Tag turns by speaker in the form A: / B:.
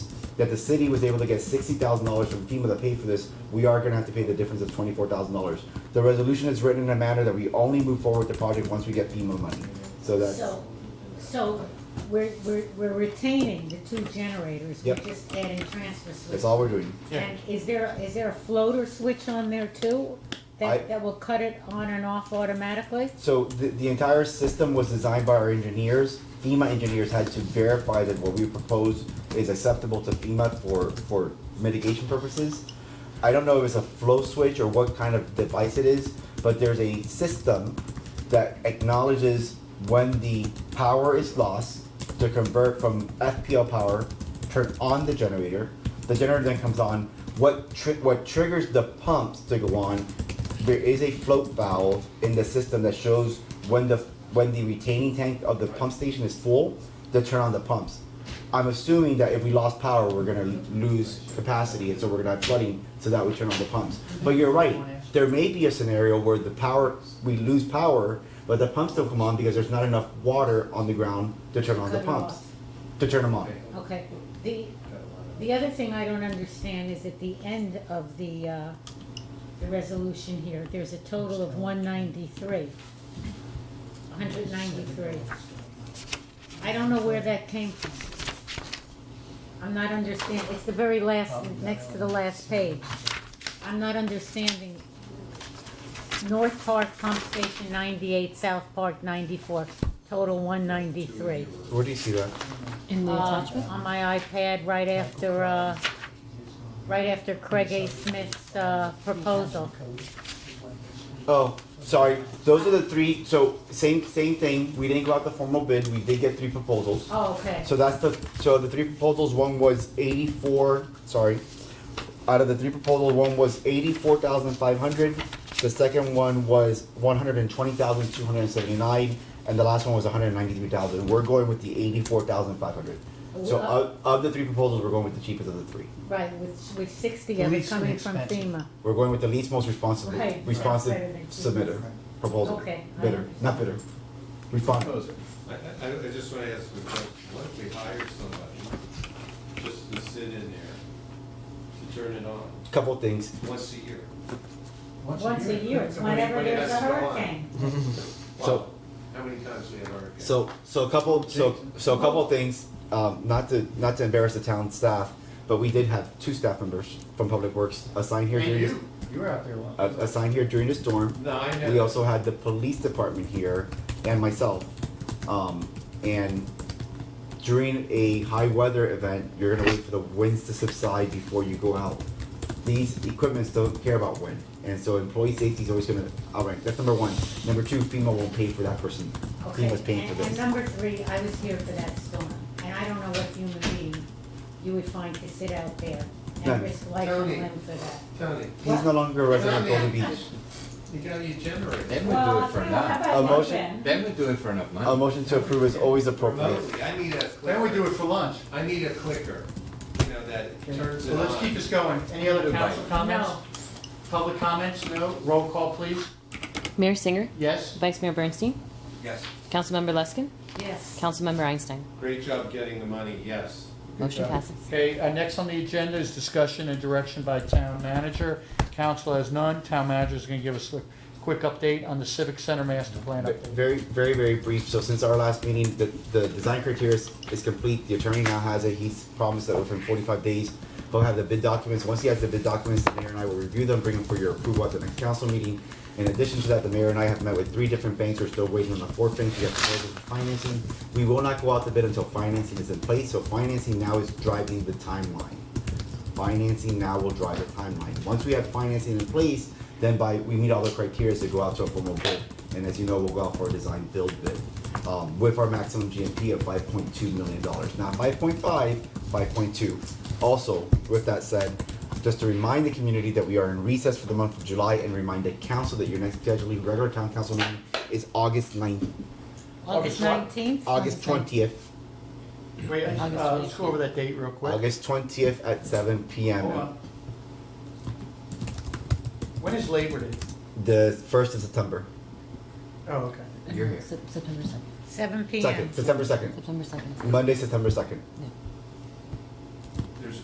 A: that the city was able to get sixty thousand dollars from FEMA to pay for this, we are gonna have to pay the difference of twenty-four thousand dollars. The resolution is written in a manner that we only move forward with the project once we get FEMA money, so that's,
B: So, so we're, we're, we're retaining the two generators, we're
A: Yep.
B: just adding transfer switch.
A: that's all we're doing.
B: And is there, is there a floater switch on there too?
A: I-
B: That, that will cut it on and off automatically?
A: So the, the entire system was designed by our engineers. FEMA engineers had to verify that what we propose is acceptable to FEMA for, for mitigation purposes. I don't know if it's a flow switch or what kind of device it is, but there's a system that acknowledges when the power is lost to convert from FPL power, turn on the generator. The generator then comes on. What tri- what triggers the pumps to go on? There is a float valve in the system that shows when the when the retaining tank of the pump station is full to turn on the pumps. I'm assuming that if we lost power, we're gonna l- lose capacity, and so we're gonna have flooding, so that we turn on the pumps. But you're right, there may be a scenario where the power, we lose power, but the pumps still come on because there's not enough water on the ground to turn on the
B: Cut it off.
A: pumps, to turn them on.
B: Okay, the, the other thing I don't understand is at the end of the, uh, the resolution here, there's a total of one ninety-three. hundred ninety-three. I don't know where that came from. I'm not understanding, it's the very last, next to the last page. I'm not understanding. North Park Pump Station ninety-eight, South Park ninety-four, total one ninety-three.
A: Where do you see that?
C: In the
B: Uh,
C: attachment?
B: on my iPad right after, uh, right after Craig A. Smith's, uh, proposal.
A: Oh, sorry, those are the three, so same, same thing, we didn't go out the formal bid, we did get three proposals.
B: Oh, okay.
A: So that's the, so the three proposals, one was eighty-four, sorry, out of the three proposals, one was eighty-four thousand five hundred, the second one was one hundred and twenty thousand two hundred and seventy-nine, and the last one was hundred and ninety-three thousand, we're going with the eighty-four thousand five hundred. So
B: Well-
A: of, of the three proposals, we're going with the cheapest of the three,
B: Right, with, with sixty of it
D: Least
B: coming from
D: inexpensive.
B: FEMA.
A: we're going with the least most responsible,
B: Right, right,
A: responsive
B: better than cheapest.
A: submitter, proposal.
B: Okay, I
A: Bidder,
B: understand.
A: not bidder, responder,
E: Proposal. I, I, I just wanna ask you, what if we hired somebody just to sit in there to turn it on
A: couple things,
E: once a year?
B: Once a year, it's whenever
E: But it
B: there's a
E: has to go on.
B: hurricane.
A: So-
E: Wow. How many times we have hurricanes?
A: So, so a couple, so, so a couple of things, um, not to, not to embarrass the town staff, but we did have two staff members from Public Works assigned here
E: And
A: during, this-
E: you,
D: You were out there once.
A: uh, assigned here during the storm.
E: no, I
A: We
E: know,
A: also had the police department here and myself. Um, and during a high weather event, you're gonna wait for the winds to subside before you go out. These equipments don't care about wind, and so employee safety is always gonna, alright, that's number one. Number two, FEMA won't pay for that person.
B: Okay,
A: FEMA's paying for
B: and-
A: this.
B: And um, number three, I was here for that storm, and I don't know what human being you would find to sit out there
A: None.
B: and risk life and
E: Tony.
B: limb for that.
E: Tony,
A: He's no longer a resident of
E: Well, I
A: Golden
E: mean,
A: Beach.
E: you got your generator
F: Then we do it for enough.
A: A motion?
F: Then we do it for enough
A: A
F: money.
A: motion to approve is always appropriate.
E: remotely, I need a
D: Then we do
E: clicker,
D: it for lunch.
E: I need a clicker, you know, that turns it
D: So let's keep
E: on.
D: this going. Any other council comments?
B: No.
D: Public comments? No? Roll call, please.
C: Mayor Singer,
D: Yes?
C: Vice Mayor Bernstein,
E: Yes.
C: Councilmember Luskin,
B: Yes.
C: Councilmember Einstein.
E: Great job getting the money, yes.
C: Motion passes.
D: Okay, uh, next on the agenda is discussion and direction by town manager. Council has none. Town manager is gonna give us a quick update on the civic center master plan
A: Ve-
D: update.
A: Very, very, very brief, so since our last meeting, the, the design criteria is, is complete, the attorney now has it, he's promised that within forty-five days, he'll have the bid documents, once he has the bid documents, the mayor and I will review them, bring them for your approval at the next council meeting. In addition to that, the mayor and I have met with three different banks, we're still waiting on the fourth bank, we have proposals for financing. We will not go out to bid until financing is in place, so financing now is driving the timeline. financing now will drive the timeline. Once we have financing in place, then by, we meet all the criteria to go out to a formal bid. And as you know, we'll go out for a design build bid, um, with our maximum GMP of five point two million dollars, not 5.5, 5.2. Also, with that said, just to remind the community that we are in recess for the month of July and remind the council that your next scheduled regular town council meeting is August ninth,
B: August
D: August
B: nineteenth?
A: August twentieth,
D: Wait, uh, let's go over that date real quick.
A: August twentieth at seven P M.
D: Hold on. When is Labor Day?
A: The first of September,
D: Oh, okay.
A: you're here.
C: September second,
B: Seven P M.
A: Second, September second.
C: September second.
A: Monday, September second.
C: No.